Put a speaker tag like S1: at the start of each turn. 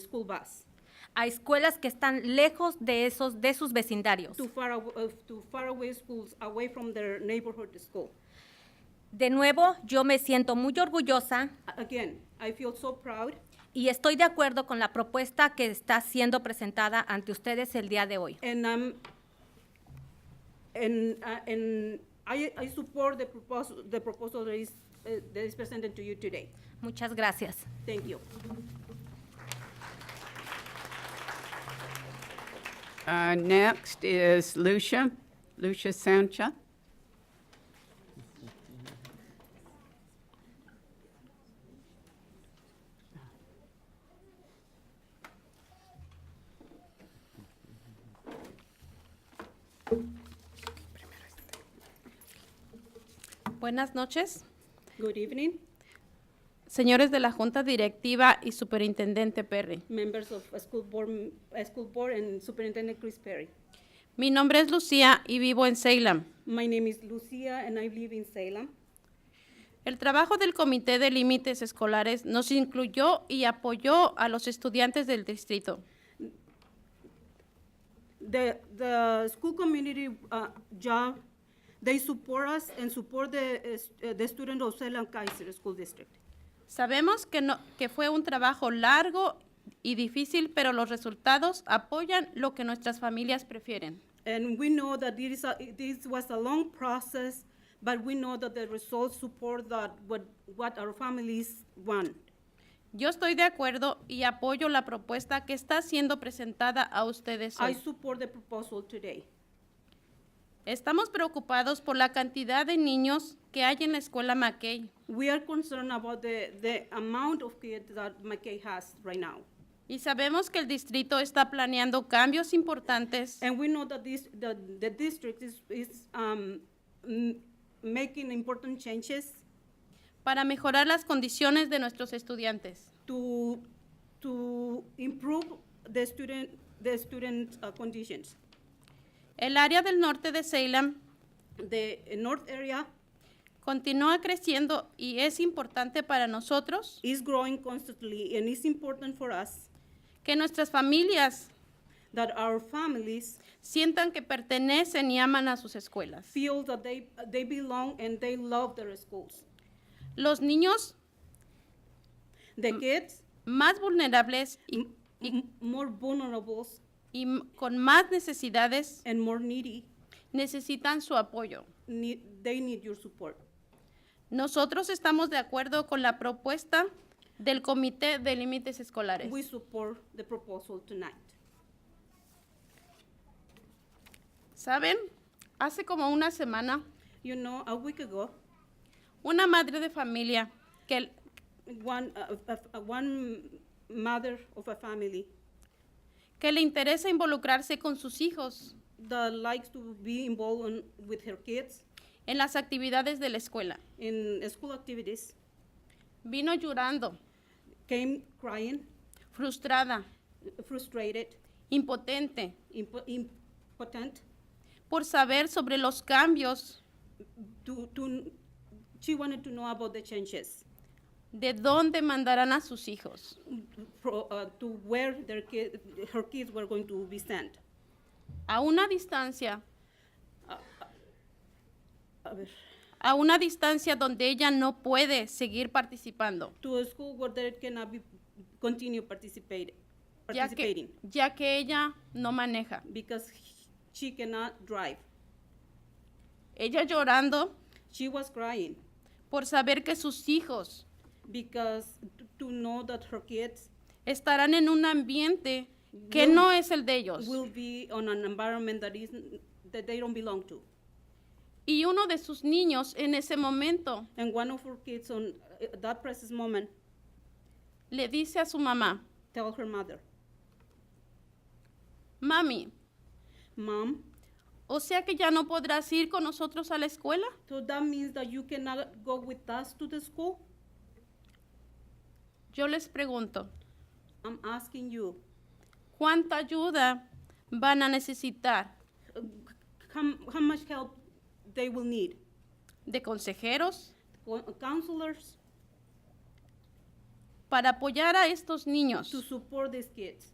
S1: school bus
S2: a escuelas que están lejos de, esos, de sus vecindarios.
S1: to far, aw- uh, to faraway schools away from their neighborhood school.
S2: De nuevo, yo me siento muy orgullosa
S1: A- Again, I feel so proud
S2: y estoy de acuerdo con la propuesta que está siendo presentada ante ustedes el día de hoy.
S1: and um, and, uh, and I, I support the proposal, the proposal that is, uh, that is presented to you today.
S2: Muchas gracias.
S1: Thank you.
S3: Uh, Next is Lucia, Lucia Sancha.
S4: Buenas noches,
S1: Good evening,
S4: señores de la Junta Directiva y Superintendente Perry.
S1: members of uh, school board, m- uh, school board and Superintendent Chris Perry.
S4: Mi nombre es Lucía y vivo en Salem.
S1: My name is Lucia and I live in Salem.
S4: El trabajo del Comité de Límites Escolares nos incluyó y apoyó a los estudiantes del distrito.
S1: The, the school community uh, job, they support us and support the, uh, s- uh, the student of Salem Kaiser School District.
S4: Sabemos que, no- que fue un trabajo largo y difícil, pero los resultados apoyan lo que nuestras familias prefieren.
S1: And we know that this, is a, this was a long process, but we know that the results support that what, what our families want.
S4: Yo estoy de acuerdo y apoyo la propuesta que está siendo presentada a ustedes
S1: I
S4: hoy.
S1: support the proposal today.
S4: Estamos preocupados por la cantidad de niños que hay en la escuela Mackey
S1: We are concerned about the, the amount of kids that McKay has right now.
S4: y sabemos que el distrito está planeando cambios importantes
S1: And we know that this, that the district is, is, um, m- making important changes
S4: para mejorar las condiciones de nuestros estudiantes.
S1: to, to improve the student, the student uh, conditions.
S4: El área del norte de Salem
S1: The uh, north area
S4: continúa creciendo y es importante para nosotros
S1: is growing constantly, and it's important for us
S4: que nuestras familias
S1: that our families
S4: sientan que pertenecen y aman a sus escuelas.
S1: feel that they, they belong and they love their schools.
S4: Los niños
S1: The kids,
S4: más vulnerables y,
S1: m- m- more vulnerable
S4: y m- con más necesidades
S1: and more needy,
S4: necesitan su apoyo.
S1: need, they need your support.
S4: Nosotros estamos de acuerdo con la propuesta del Comité de Límites Escolares.
S1: We support the proposal tonight.
S4: ¿Saben? Hace como una semana,
S1: You know, a week ago,
S4: una madre de familia que,
S1: one, uh, uh, uh, one mother of a family
S4: que le interesa involucrarse con sus hijos
S1: that likes to be involved in, with her kids
S4: en las actividades de la escuela
S1: in school activities
S4: vino llorando,
S1: came crying,
S4: frustrada,
S1: frustrated,
S4: impotente,
S1: impo- impotent,
S4: por saber sobre los cambios,
S1: to, to, she wanted to know about the changes,
S4: de dónde mandarán a sus hijos.
S1: pro, uh, to where their kid, her kids were going to be sent.
S4: A una distancia,
S1: A ver.
S4: a una distancia donde ella no puede seguir participando.
S1: To a school where they cannot be, continue participating,
S4: ya que,
S1: participating,
S4: ya que ella no maneja.
S1: because he- she cannot drive.
S4: Ella llorando
S1: She was crying
S4: por saber que sus hijos
S1: because to, to know that her kids
S4: estarán en un ambiente que no es el de ellos.
S1: will be on an environment that isn't, that they don't belong to.
S4: Y uno de sus niños en ese momento
S1: And one of her kids on uh, that precious moment
S4: le dice a su mamá,
S1: tell her mother,
S4: mami,
S1: Mom,
S4: o sea que ya no podrás ir con nosotros a la escuela.
S1: so that means that you cannot go with us to the school?
S4: Yo les pregunto,
S1: I'm asking you,
S4: ¿cuánta ayuda van a necesitar?
S1: uh, how, how much help they will need?
S4: ¿De consejeros?
S1: Coun- Counselors,
S5: para apoyar a estos niños.
S4: to support these kids.